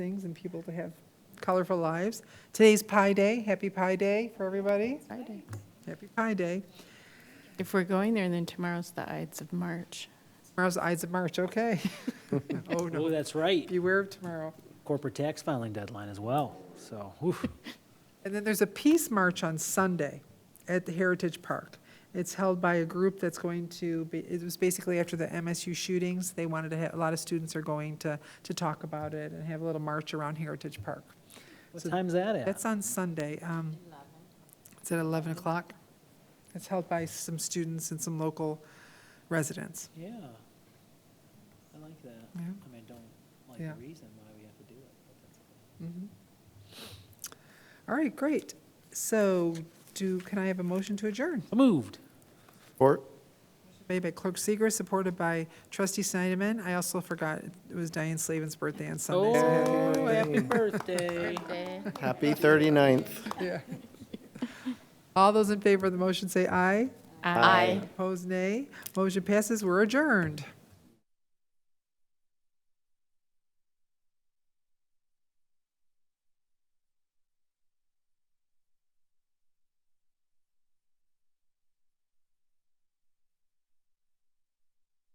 things and people to have colorful lives. Today's Pi Day, happy Pi Day for everybody, Friday. happy Pi Day. If we're going there, then tomorrow's the Ides of March. Tomorrow's the Ides of March, okay. Oh, no, Oh, that's right. beware of tomorrow. Corporate tax filing deadline as well, so, oof. And then there's a peace march on Sunday at the Heritage Park. It's held by a group that's going to, be it was basically after the MSU shootings. They wanted to, have a lot of students are going to, to talk about it and have a little march around Heritage Park. What So time's that at? That's on Sunday. um, It's at 11 o'clock. It's held by some students and some local residents. Yeah. I like that. I Yeah. mean, I don't like Yeah. the reason why we have to do it. but that's okay. Mhm. All right, great. So do, can I have a motion to adjourn? So Moved. Support? Made by Clerk Seeger, supported by Trustee Snyderman. I also forgot, it was Diane Slavin's birthday on Sunday. so happy Oh, birthday. happy birthday. Happy 39th. Yeah. All those in favor of the motion say aye. Aye. Opposed, nay. Motion passes, we're adjourned.